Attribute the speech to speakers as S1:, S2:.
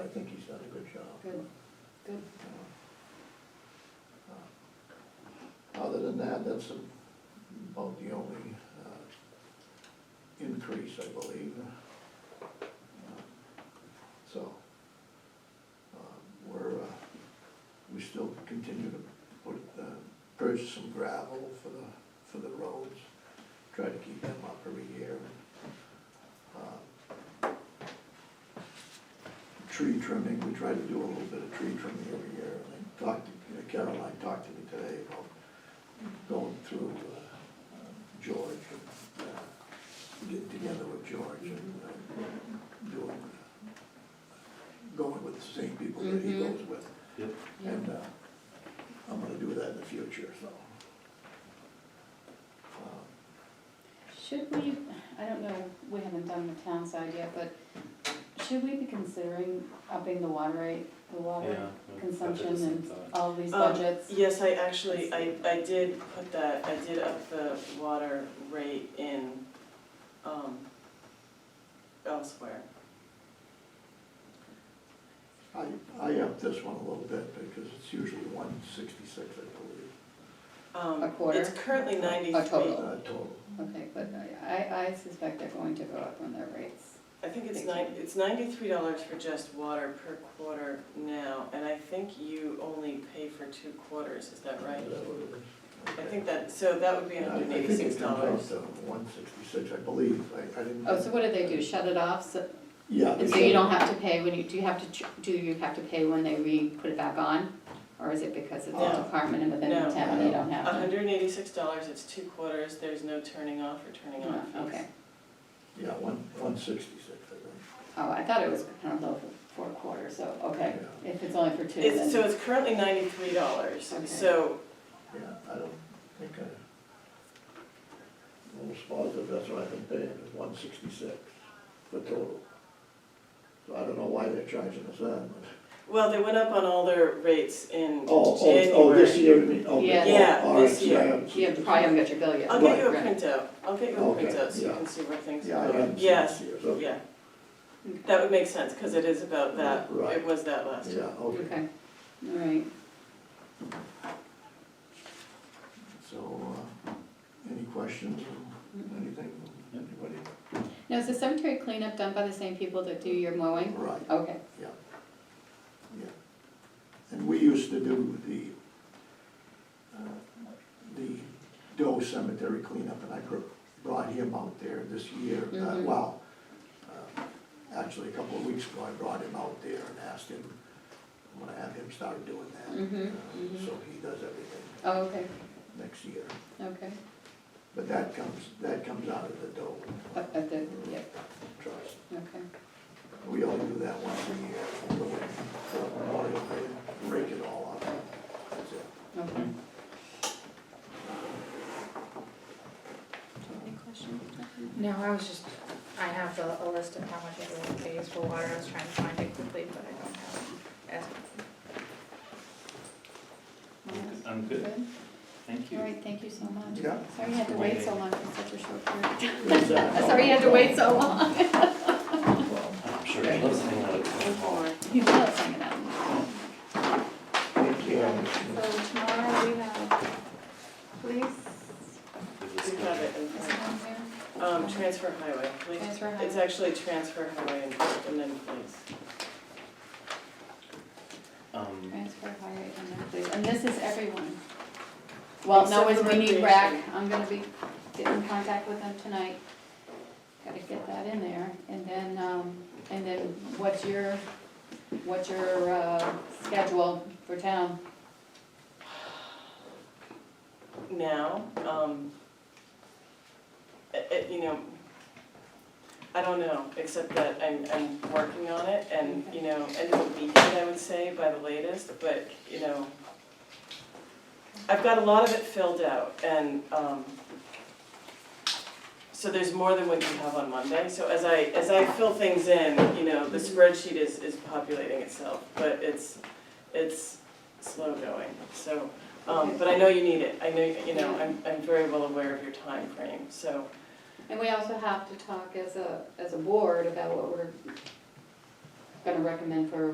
S1: good, good.
S2: Other than that, that's about the only uh, increase, I believe. So, uh, we're, uh, we still continue to put, uh, purchase some gravel for the, for the roads, try to keep them up every year. Uh, Tree trimming, we try to do a little bit of tree trimming every year, and I talked to, Caroline talked to me today about going through uh, um, George, and uh, getting together with George and uh, doing, uh, going with the same people that he
S1: Mhm.
S2: goes with.
S3: Yep.
S1: Yeah.
S2: And uh, I'm gonna do that in the future, so. Um,
S1: Should we, I don't know, we haven't done the town side yet, but should we be considering upping the water rate, the water
S3: Yeah,
S1: consumption
S3: that's a
S1: and
S3: thought.
S1: all these
S4: Um,
S1: budgets?
S4: Yes, I actually, I, I did put that, I did up the water rate in, um, elsewhere.
S2: I, Uh, I upped this one a little bit because it's usually one sixty-six, I
S4: Um,
S1: A quarter?
S4: It's currently ninety-three.
S1: A total?
S2: believe, uh, total.
S1: Okay, but I, I suspect they're going to go up on their rates.
S4: I think it's nine,
S1: Thank you.
S4: it's ninety-three dollars for just water per quarter now, and I think you only pay for two quarters, is that right?
S2: Is that what it is?
S4: I think that, so that would be
S2: Yeah, I-
S4: hundred and eighty-six
S2: I
S4: dollars.
S2: think it comes out to one sixty-six, I believe, I, I
S3: Mm-hmm.
S2: didn't.
S1: Oh, so what do they do, shut it off, so,
S2: Yeah.
S1: and so you don't have to pay when you, do you have to, ch- do you have to pay when they re-put it back on? Or is it because it's a
S4: No.
S1: department and within
S4: No.
S1: the town, they don't have to?
S4: hundred and eighty-six dollars, it's two quarters, there's no turning off or turning on
S1: Oh,
S4: fees.
S1: Okay,
S2: Yeah, one, one sixty-six, I
S1: oh, I thought it was kind of low for, for a quarter, so, okay, if it's only for two, then.
S4: It's, so it's currently ninety-three dollars,
S1: Okay.
S4: so
S2: think, yeah, I don't think I. Almost positive, that's what I've been paying, is one sixty-six for total. So I don't know why they're charging us that much.
S4: Well, they went up on all their rates in
S2: Oh, oh, oh, this
S4: January.
S2: year, you mean, oh, the-
S1: Yeah.
S2: oh,
S4: Yeah,
S2: all right,
S4: this
S2: see,
S4: year.
S2: I haven't
S1: You
S2: seen
S1: have
S2: this
S1: probably
S2: yet.
S1: haven't got your bill yet.
S4: I'll get you a
S1: Right.
S4: printout, I'll get you a
S2: Okay,
S4: printout so you
S2: yeah.
S4: can see where things
S2: Yeah, I
S4: are going.
S2: haven't seen
S4: Yes,
S2: this year, so,
S4: yeah,
S1: Okay.
S4: that would make sense, cause it is about that,
S2: Right.
S4: it was that last year.
S2: yeah, okay.
S1: Okay, all right,
S2: So, uh, any questions,
S1: Mm.
S2: anything,
S3: Yep.
S2: anybody?
S1: now, is the cemetery cleanup done by the same people that do your mowing?
S2: Right,
S1: Okay,
S2: yeah, yeah. And we used to do the, uh, the Doe Cemetery cleanup, and I br- brought him out there this year, uh,
S1: Mhm.
S2: well, uh, actually, a couple of weeks ago, I brought him out there and asked him, I'm gonna have him start doing that.
S1: Mhm,
S2: uh,
S1: mhm.
S2: So he does everything
S1: oh, okay,
S2: next year,
S1: okay,
S2: but that comes, that comes out of the Doe
S1: Up at Uh, the, yeah,
S2: Trust.
S1: okay,
S2: We all do that once a year, we go in for Memorial Day, rake it all up, that's it.
S1: okay.
S5: No, I was just, I have the, a list of how much everyone pays for water, I was trying to find it quickly, but I don't have it. As-
S3: I'm good, thank
S1: All
S3: you.
S1: right, thank you so much.
S2: Yeah.
S1: Sorry you had to wait so long for such a short period.
S2: That's it.
S1: Sorry you had to wait so long.
S2: Well,
S3: I'm sure he loves hanging out at town hall.
S1: You loves hanging out.
S2: Thank you.
S5: So tomorrow we have police,
S3: Give
S4: You
S3: this
S4: have it in
S5: is it
S4: front.
S5: on there?
S4: Um, transfer highway, please,
S5: Transfer
S4: it's
S5: highway.
S4: actually transfer highway and and then please.
S3: guy. Um,
S1: Transfer highway and then please, and this is everyone. Well, no,
S4: Except
S1: it's
S4: for
S1: we need rack,
S4: recreation.
S1: I'm gonna be getting in contact with them tonight. Gotta get that in there, and then, um, and then what's your, what's your, uh, schedule for town?
S4: Now, um, it, it, you know, I don't know, except that I'm, I'm working on it and, you know, end of the weekend, I would say, by the latest, but, you know, I've got a lot of it filled out and, um, so there's more than what you have on Monday, so as I, as I fill things in, you know, the spreadsheet is, is populating itself, but it's, it's slow going, so, um, but I know you need it, I know, you know, I'm, I'm very well aware of your time frame. so,
S1: And we also have to talk as a, as a board about what we're gonna recommend for